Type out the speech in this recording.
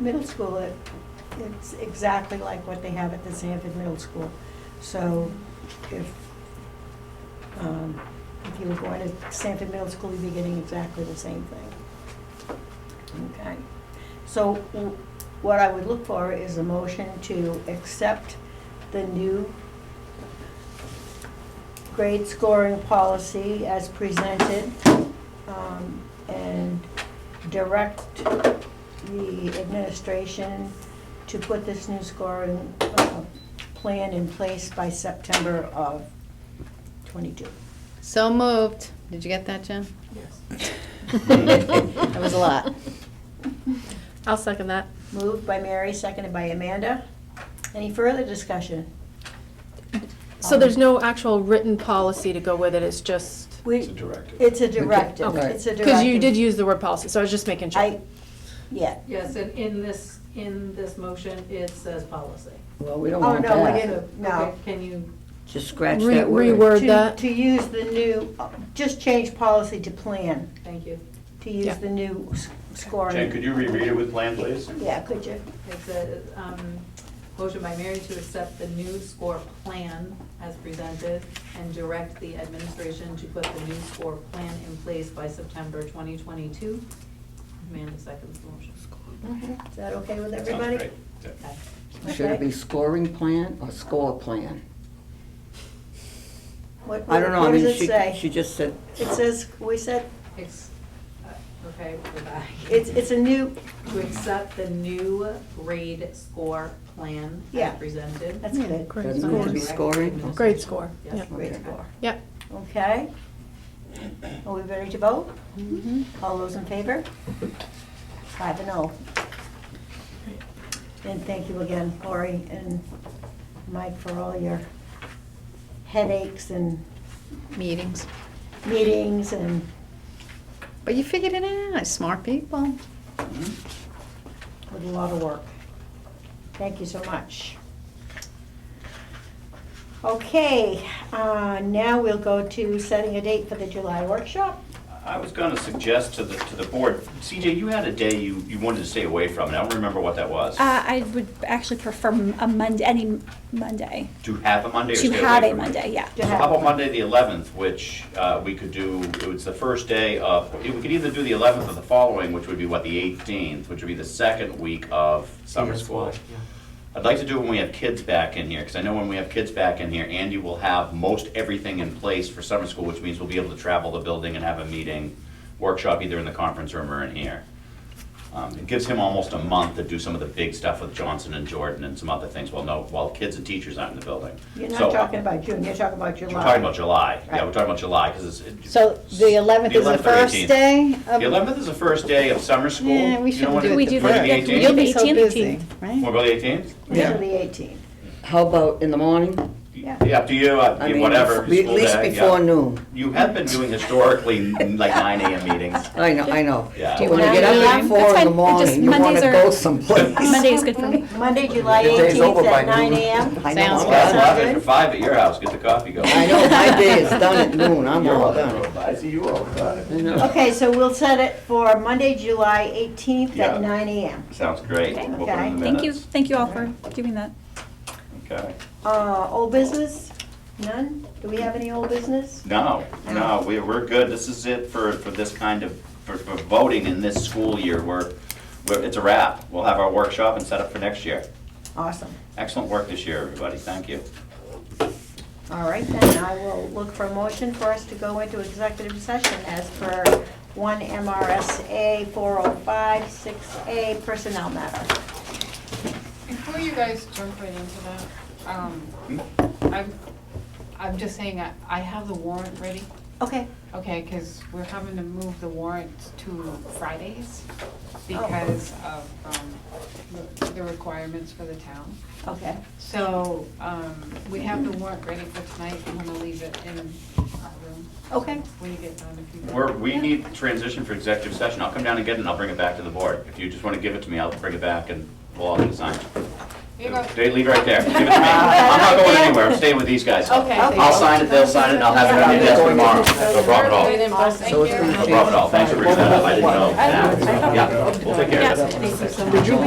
middle school, it, it's exactly like what they have at the Sanford Middle School. So if, um, if you were going to Sanford Middle School, you'd be getting exactly the same thing. Okay. So w- what I would look for is a motion to accept the new grade scoring policy as presented um, and direct the administration to put this new scoring uh, plan in place by September of '22. So moved. Did you get that, Jen? Yes. That was a lot. I'll second that. Moved by Mary, seconded by Amanda. Any further discussion? So there's no actual written policy to go with it, it's just, We- It's a directive. It's a directive, Okay. it's a directive. because you did use the word policy, so I was just making I, sure. yeah. Yes, and in this, in this motion, it says policy. Well, we don't Oh, want no, we that. didn't, no. Okay, Can you, Just scratch Re- that word. reword. Heard To- that. To use the new, just change policy to plan, thank you. to use Yeah. the new s- scoring. Jen, could you reread it with plan, please? Yeah, could you? It says, um, motion by Mary to accept the new score plan as presented and direct the administration to put the new score plan in place by September twenty twenty-two. Amanda seconds the motion. Is that okay with Sounds everybody? great. Yeah. Okay. Should it Okay. be scoring plan or score plan? What- I don't know, I What mean, does she, it she say? just said, It says, we said, Ex- uh, Okay, we're back. it's, it's a new, To accept the new grade score plan Yeah. as presented. that's good. Hmm, Great doesn't it have to be score. scoring? Grade score, yeah. Yes. Great score. Yep. Okay. Are we ready to vote? All those in favor? Five and oh. And thank you again, Lori and Mike, for all your headaches and Meetings. meetings and, But you figured it out, smart people. Hmm? with a lot of work. Thank you so much. Okay, uh, now we'll go to setting a date for the July workshop. I was gonna suggest to the, to the board, CJ, you had a day you, you wanted to stay away from, and I don't remember what that was. Uh, I would actually prefer m- a Monday, any Monday, To have a Monday or stay to away from? have a it? Monday, yeah. To So have- how about Monday, the 11th, which uh, we could do, it's the first day of, we could either do the 11th or the following, which would be what, the 18th, which would be the second week of summer school. I'd like to do it when we have kids back in here, because I know when we have kids back in here, Andy will have most everything in place for summer school, which means we'll be able to travel the building and have a meeting, workshop either in the conference room or in here. Um, It gives him almost a month to do some of the big stuff with Johnson and Jordan and some other things, while no, while kids and teachers aren't in the building. You're So- uh, not talking about June, you're talking about July. we're talking about July, yeah, Right. we're talking about July, because it's. So the 11th is the 11th or first 18th. day The of. eleventh is the first day of summer school. Yeah, we You know shouldn't what do it. We do wanna that. the That's- You'll eighteenth? be so 18th? busy, Wanna right? go the eighteenth? Until Yeah. the eighteenth. how about in the morning? Yeah. Up to you, I uh, mean, whatever, be- school day, At least yeah. before noon. You have been doing historically like nine AM meetings. I know, I know. Yeah. You wanna get Nine up a.m.? at four in That's the fine. Just morning, you wanna Mondays are- go someplace. Monday is good for me. Monday, July The day's eighteenth over by at nine noon. AM. I know, Sounds I'm I'm good. glad done. I'm after five at your house, get the coffee going. I know, my day is done at noon, I'm You're all all done. done. I see you all done. I know. Okay, so we'll set it for Monday, July eighteenth Yeah. at nine AM. Sounds great. Okay. We'll put it in the Thank you, minutes. thank you all for doing that. Okay. Uh, old business? None? Do we have any old business? No, no, we, we're good. This is it for, for this kind of, for, for voting in this school year. We're, we're, it's a wrap. We'll have our workshop and set up for next year. Awesome. Excellent work this year, everybody. Thank you. All right, then I will look for a motion for us to go into executive session as per one MRSA four oh five six A personnel matter. Before you guys jump right into that, um, I'm, I'm just saying, I, I have the warrant ready, Okay. okay, cause we're having to move the warrant to Fridays because of, um, the- the requirements for the town. Okay. So, um, we have the warrant ready for tonight, I'm gonna leave it in our room. Okay. When you get done, if you. We're, we need transition for executive session. I'll come down and get it and I'll bring it back to the board. If you just want to give it to me, I'll bring it back and we'll all get it signed. Here you go. They leave it right there. Give it to me. I'm not going anywhere. I'm staying with these guys. Okay. I'll sign it, they'll sign it, and I'll have it on your desk tomorrow. No problem at all. No So it's gonna problem at all. Thanks for bringing that up. I didn't know. Yeah, we'll take care of it. Did you